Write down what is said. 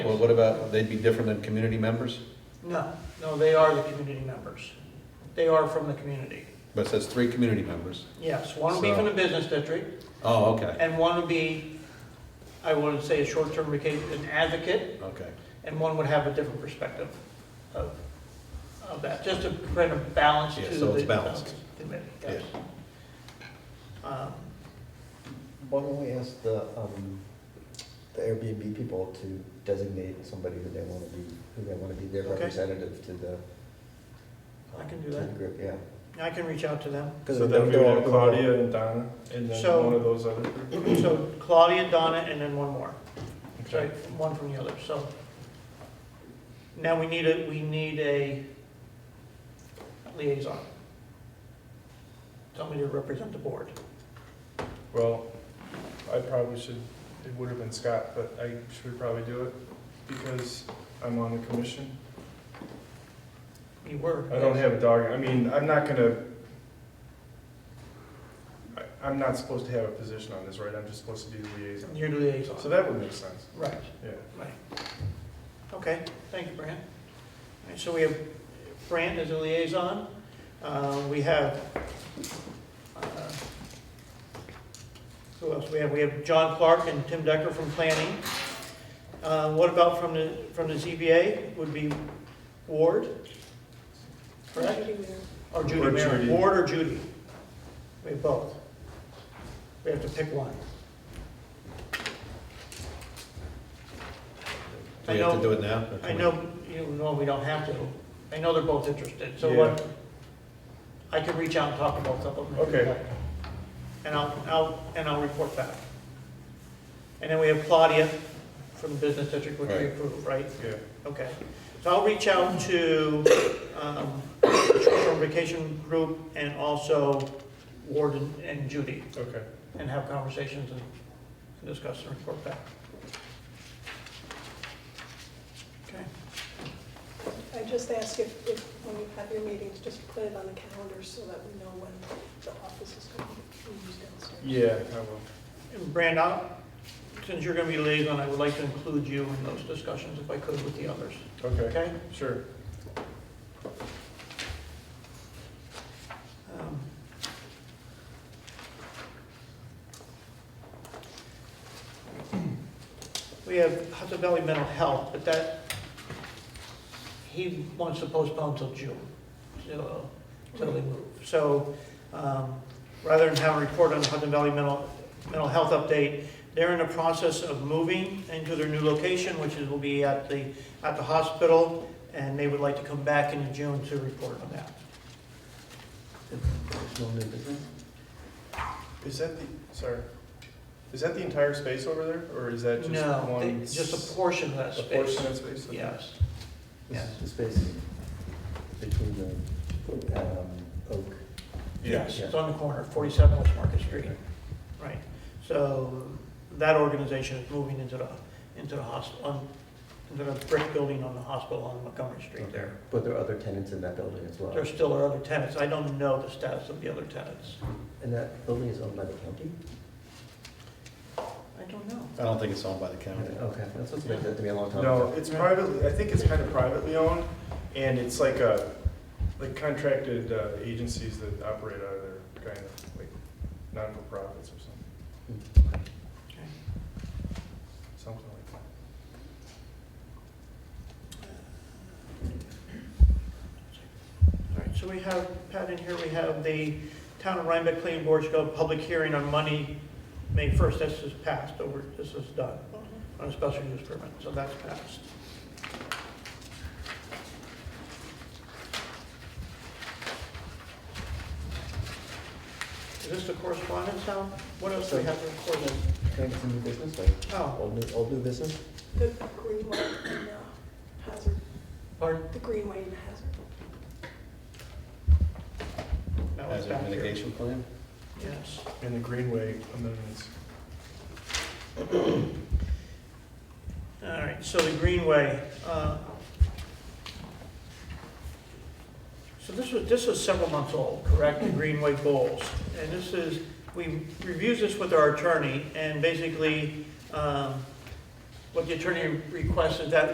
Well, what about, they'd be different than community members? No, no, they are the community members. They are from the community. But it says three community members. Yes, one would be from the business district, Oh, okay, and one would be, I wouldn't say a short-term vacation, an advocate, okay. and one would have a different perspective of, of that, just to bring a balance to Yeah, the. so it's balanced. Committee, yes. Um, Why don't we ask the, um, the Airbnb people to designate somebody who they wanna be, who they wanna be their Okay. representative to the. I can um, do to that. the Group, yeah. I can reach out to them. 'Cause So they're- then we they're would all- have they're all- Claudia and Donna, and So- then one of those other. So Claudia, Donna, and then one more. Sorry, Okay. one from the other, so. Now we need a, we need a liaison. Somebody to represent the board. Well, I probably should, it would have been Scott, but I should probably do it because I'm on the commission. You were. I don't have a dog, I mean, I'm not gonna, I- I'm not supposed to have a position on this, right? I'm just supposed to be the liaison. You're the So liaison. that would make sense, Right, yeah. right. Okay, thank you, Brant. All right, so we have Brant as a liaison. Uh, We have, uh, who else we have? We have John Clark and Tim Decker from planning. Uh, What about from the, from the ZBA would be Ward? Correct? Or Judy Or Merrick? Judy. Ward or Judy? We have both. We have to pick one. Do I you have to know, do it now? or can I we- know, you know, we don't have to. I know they're both interested, so what? I can reach out and talk to both of them. if you'd Okay. like. And I'll, I'll, and I'll report back. And then we have Claudia from Business District, which we Right. approve, right? Yeah, Okay, so I'll reach out to, um, short-term vacation group and also Ward and- and Judy okay. and have conversations and and discuss and report back. Okay, I just ask if, if, when you have your meetings, just put it on the calendar so that we know when the office is going to be used downstairs. Yeah, I will. and Brand out, since you're gonna be liaison, I would like to include you in those discussions if I could with the others, Okay, okay? sure. Um, We have Hudson Valley Mental Health, but that, he wants to postpone till June, till till they move. So um, rather than have a report on Hudson Valley Mental, Mental Health Update, they're in the process of moving into their new location, which is, will be at the, at the hospital, and they would like to come back in June to report on that. There's no new business? Is that the, sorry, is that the entire space over there, or is that just No, one? they- just a portion of that A space. portion of space? Okay. Yes, This Yes. is The space between the, um, oak. yes, it's on the corner, 47 West Market Street, right. So that organization is moving into the, into the hospital, into the brick building on the hospital on Montgomery Street there. But there are other tenants in that building as well. There still are other tenants, I don't know the status of the other tenants. And that building is owned by the county? I don't know. I don't think it's owned by the county. Okay, that's what's been said to me a long time. No, ago. it's privately, I think it's kind of privately owned, and it's like a, like contracted uh, agencies that operate out of there, kind of, like, non-for-profits or something, Okay. something like that. All right, so we have, Pat, in here, we have the Town of Rhinebeck Planning Board to go public hearing on Monday, May 1st, this is passed over, this is done. uh-huh. on a special use permit, so that's passed. Is this the correspondence now? What else do we have to record? Can I get some new business, like, Oh, old, new- old new business? The Greenway and uh, Hazard, pardon, the Greenway and Hazard. that was Hazard back here. mitigation plan? Yes. And the Greenway amendments. All right, so the Greenway. uh, So this was, this was several months old, correct, the Greenway goals? And this is, we reviewed this with our attorney, and basically, um, what the attorney requested, that